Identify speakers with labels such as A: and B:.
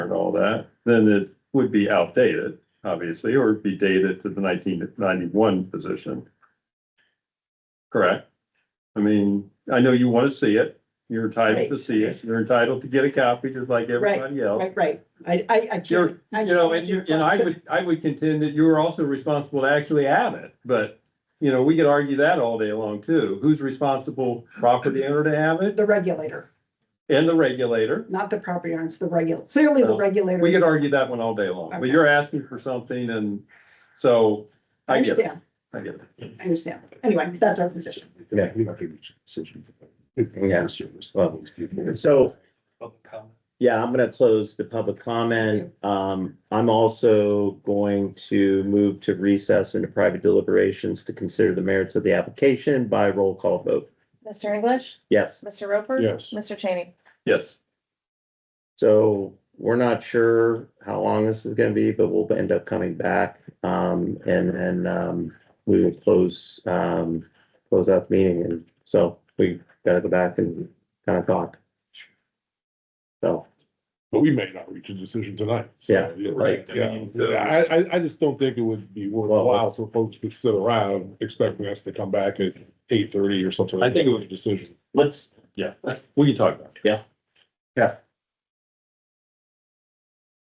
A: and all that, then it would be outdated, obviously, or it'd be dated to the nineteen ninety-one position. Correct? I mean, I know you want to see it, you're entitled to
B: Right.
A: see it, you're entitled to get a copy, just like everybody else.
B: Right, right. I, I, I
A: You're,
B: can't. I
A: you know,
B: can't
A: and,
B: answer
A: you-
B: your
A: and I
B: question.
A: would, I would contend that you are also responsible to actually have it, but, you know, we could argue that all day long too. Who's responsible property owner to have it
B: The regulator,
A: and the regulator?
B: not the property owners, the regulator. Clearly, the
A: No,
B: regulator.
A: Oh. We could argue that one all day long, but
B: Okay.
A: you're asking for something and so
B: I
A: I get it,
B: understand,
A: I get it.
B: I understand. Anyway, that's our position.
C: Yeah, we don't have to reach a decision. Yeah.
D: So,
C: Public comment.
D: yeah, I'm gonna close the public comment. Um, I'm also going to move to recess into private deliberations to consider the merits of the application by roll call vote.
E: Mr. English,
D: Yes,
E: Mr. Roper.
C: Yes.
E: Mr. Cheney.
A: Yes,
D: so we're not sure how long this is gonna be, but we'll end up coming back. Um, and then, um, we will close, um, close out the meeting. And so we gotta go back and kind of talk. So,
F: But we may not reach a decision tonight. So,
D: Yeah,
C: right.
F: Yeah, I, I, I just don't think it would be worthwhile for folks to sit around expecting us to come back at eight thirty or something.
A: I think it
F: was a decision.
D: let's,
A: yeah, we can talk about it.
D: Yeah.
A: Yeah,